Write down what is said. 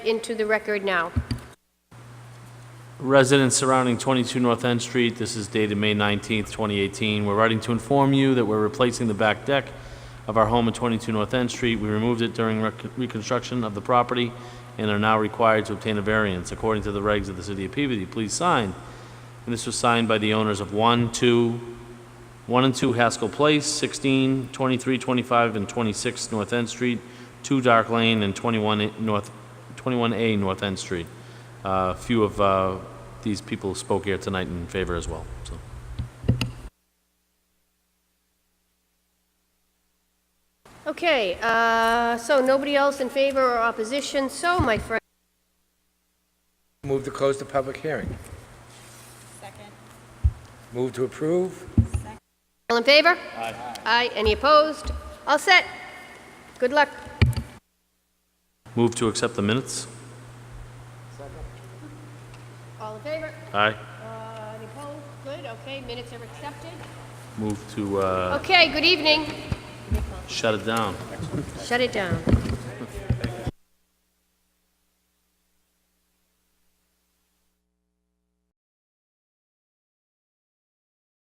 into the record now. Residents surrounding 22 North End Street, this is dated May 19th, 2018. We're writing to inform you that we're replacing the back deck of our home at 22 North End Street. We removed it during rec- reconstruction of the property and are now required to obtain a variance according to the regs of the City of Peabody. Please sign. And this was signed by the owners of 1, 2, 1 and 2 Haskell Place, 16, 23, 25, and 26 North End Street, 2 Dark Lane, and 21 A- North, 21A North End Street. A few of uh, these people spoke here tonight in favor as well, so. Okay, uh, so nobody else in favor or opposition, so my friend, Move to close the public hearing. Second. Move to approve? all in favor? Aye. Aye, any opposed? All set. Good luck. Move to accept the minutes? All in favor? Aye. Uh, Any opposed? Good, okay, minutes are accepted. Move to uh, Okay, good evening. shut it down. Shut it down.